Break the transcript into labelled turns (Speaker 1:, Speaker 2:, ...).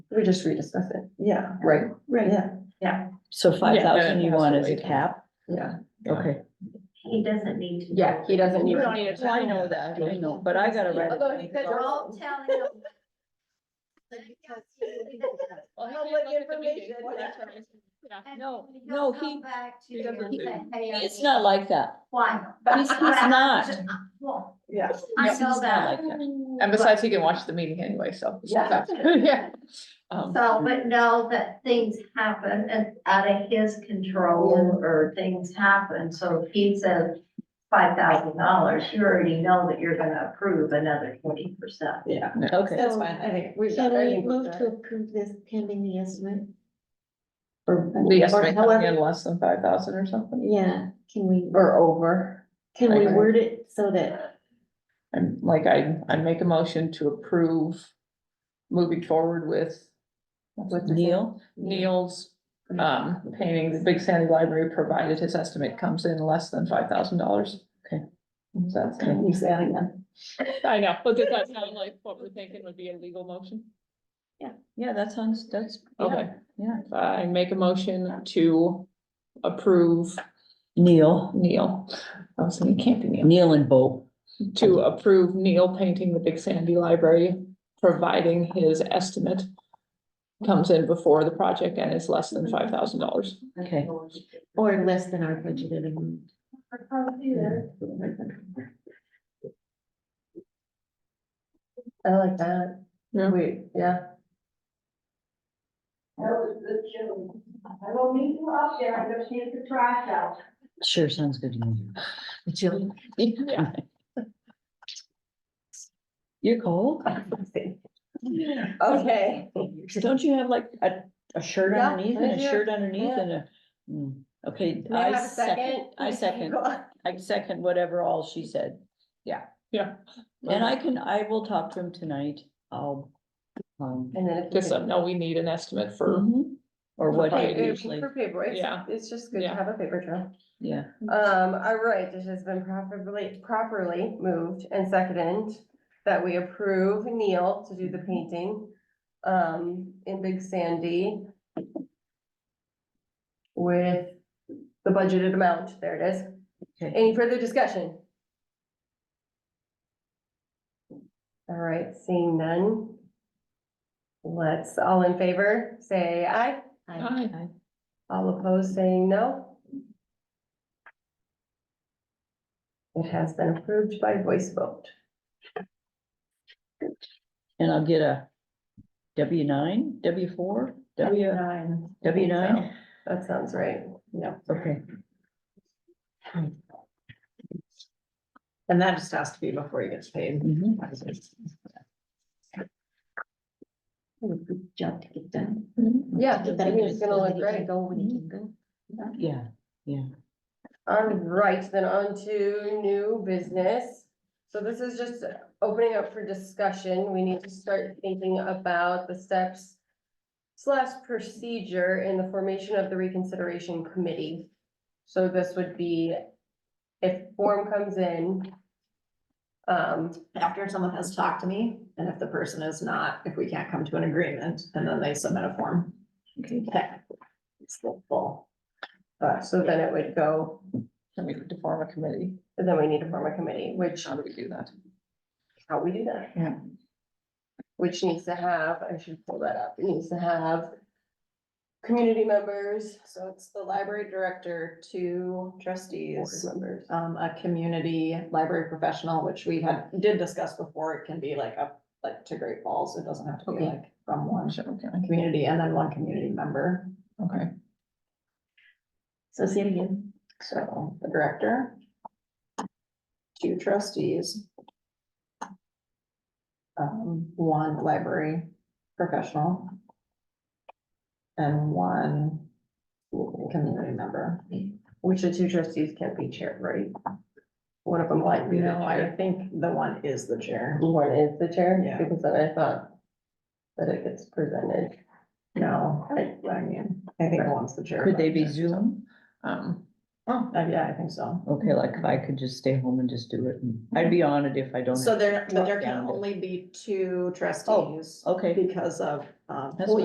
Speaker 1: We just rediscuss it. Yeah,
Speaker 2: Right,
Speaker 3: Right,
Speaker 1: yeah,
Speaker 2: so five thousand you
Speaker 4: that's
Speaker 2: want
Speaker 4: the
Speaker 2: as
Speaker 4: way
Speaker 2: a
Speaker 4: to-
Speaker 2: cap,
Speaker 1: yeah.
Speaker 4: Yeah.
Speaker 2: okay.
Speaker 5: He doesn't need to.
Speaker 1: Yeah, he doesn't need.
Speaker 4: don't need a
Speaker 2: I know that, I know, but I gotta write. it
Speaker 1: Although
Speaker 2: down.
Speaker 1: he said-
Speaker 5: Don't tell him.
Speaker 4: No, no, he,
Speaker 5: he doesn't
Speaker 2: It's not like that,
Speaker 5: Why? uh,
Speaker 2: he's, he's not,
Speaker 5: Well,
Speaker 1: Yeah.
Speaker 5: I
Speaker 2: He's
Speaker 5: know
Speaker 2: not
Speaker 5: that.
Speaker 2: like that.
Speaker 4: And besides, he can watch the meeting anyway, so.
Speaker 1: Yeah.
Speaker 4: Yeah. Um,
Speaker 5: So, but know that things happen and out of his control or things happen, so if he says five thousand dollars, you already know that you're gonna approve another twenty percent.
Speaker 1: Yeah.
Speaker 2: Okay,
Speaker 1: That's fine, I think we've. got
Speaker 3: Can we
Speaker 1: everything
Speaker 3: move
Speaker 1: done.
Speaker 3: to approve this pending the estimate?
Speaker 1: Or-
Speaker 4: the estimate
Speaker 3: however-
Speaker 4: coming in less than five thousand or something,
Speaker 3: Yeah, can we,
Speaker 1: Or over.
Speaker 3: can we
Speaker 4: Okay.
Speaker 3: word it so that,
Speaker 4: and like I, I make a motion to approve moving forward with. With
Speaker 2: Neil,
Speaker 4: Neil's,
Speaker 2: Uh,
Speaker 4: um, painting, the Big Sandy Library, provided his estimate comes in less than five thousand dollars.
Speaker 2: Okay.
Speaker 4: That's,
Speaker 1: He's adding them.
Speaker 4: I know, but does that sound like what we're thinking would be a legal motion?
Speaker 2: yeah, that sounds, that's, yeah,
Speaker 4: Okay,
Speaker 2: yeah,
Speaker 4: I make a motion to approve
Speaker 2: Neil,
Speaker 4: Neil. I was thinking, it can't be Neil.
Speaker 2: Neil and Bo.
Speaker 4: to approve Neil painting the Big Sandy Library, providing his estimate comes in before the project and is less than five thousand dollars.
Speaker 2: Okay.
Speaker 3: or less than our budgeted amount?
Speaker 1: I like that.
Speaker 4: Yeah.
Speaker 1: We, yeah.
Speaker 5: I will meet you up there, I'm gonna take the trash out.
Speaker 2: Sure, sounds good to me. Jill?
Speaker 4: Yeah.
Speaker 2: You're cold?
Speaker 1: Okay.
Speaker 2: Don't you have like a, a shirt
Speaker 1: Yeah,
Speaker 2: underneath
Speaker 1: I
Speaker 2: and a
Speaker 1: do.
Speaker 2: shirt underneath
Speaker 1: Yeah.
Speaker 2: and a, mm, okay,
Speaker 1: May I
Speaker 2: I
Speaker 1: have a
Speaker 2: second, I second, I second whatever all she said.
Speaker 4: Yeah,
Speaker 2: And I can, I will talk to him tonight, I'll, um,
Speaker 1: And then. if we
Speaker 4: just
Speaker 1: can-
Speaker 4: so no, we need an estimate for,
Speaker 1: Mm-hmm.
Speaker 2: mhm, or what
Speaker 1: Hey,
Speaker 2: I
Speaker 1: it-
Speaker 2: usually,
Speaker 1: For paper,
Speaker 4: Yeah.
Speaker 1: it's, it's just good to
Speaker 4: Yeah.
Speaker 1: have a paper trail.
Speaker 2: yeah,
Speaker 1: Um, all right, it has been properly, properly moved and seconded that we approve Neil to do the painting um, in Big Sandy with the budgeted amount, there it is.
Speaker 2: Okay.
Speaker 1: Any further discussion? All right, seeing none. Let's, all in favor, say aye.
Speaker 4: Aye.
Speaker 1: All opposed saying no? It has been approved by voice vote.
Speaker 2: and I'll get a W nine, W four, W,
Speaker 1: Nine.
Speaker 2: W nine,
Speaker 1: That sounds right. Yeah.
Speaker 2: okay.
Speaker 6: And that just has to be before he gets paid.
Speaker 2: mhm.
Speaker 3: Good job to get done.
Speaker 1: Yeah,
Speaker 3: Get that
Speaker 1: I mean, it's
Speaker 3: done
Speaker 1: gonna
Speaker 3: so
Speaker 1: look
Speaker 3: that it can
Speaker 1: great.
Speaker 3: Go when it can go.
Speaker 2: Yeah,
Speaker 1: All right, then on to new business. So this is just opening up for discussion. We need to start thinking about the steps slash procedure in the formation of the reconsideration committee. So this would be if form comes in, um,
Speaker 6: After someone has talked to me, and if the person is not, if we can't come to an agreement, and then they submit a form. Technically, It's the full.
Speaker 1: Uh, so then it would go,
Speaker 4: I mean, to form a committee,
Speaker 1: and then we need to form a committee, which,
Speaker 4: how do we do that?
Speaker 1: how we do that.
Speaker 4: Yeah.
Speaker 1: Which needs to have, I should pull that up, it needs to have community members,
Speaker 6: So it's the library director, two
Speaker 1: board
Speaker 6: trustees,
Speaker 1: members.
Speaker 6: um, a community library professional, which we had, did discuss before. It can be like up, like to Great Falls. It doesn't have to be
Speaker 4: Okay.
Speaker 6: like from one
Speaker 4: Sure, okay,
Speaker 6: community and then one community member.
Speaker 4: Okay,
Speaker 3: So say it again.
Speaker 6: So the director. Two trustees. Um, one library professional. And one community member.
Speaker 1: Which the two trustees can't be chair, right? One of them might be the
Speaker 6: No, I
Speaker 1: chair.
Speaker 6: think the one is the chair.
Speaker 1: One is the chair,
Speaker 6: Yeah.
Speaker 1: because then I thought that it gets presented.
Speaker 6: No, I, I mean, I think the one's the chair.
Speaker 2: could they be Zoom?
Speaker 4: um,
Speaker 6: Oh, uh, yeah, I think so.
Speaker 2: Okay, like if I could just stay home and just do it, and I'd be on it if I don't.
Speaker 6: So
Speaker 2: have to
Speaker 6: there, but
Speaker 2: walk
Speaker 6: there can
Speaker 2: down to-
Speaker 6: only be two trustees
Speaker 2: Okay.
Speaker 6: because of, um.
Speaker 2: That's what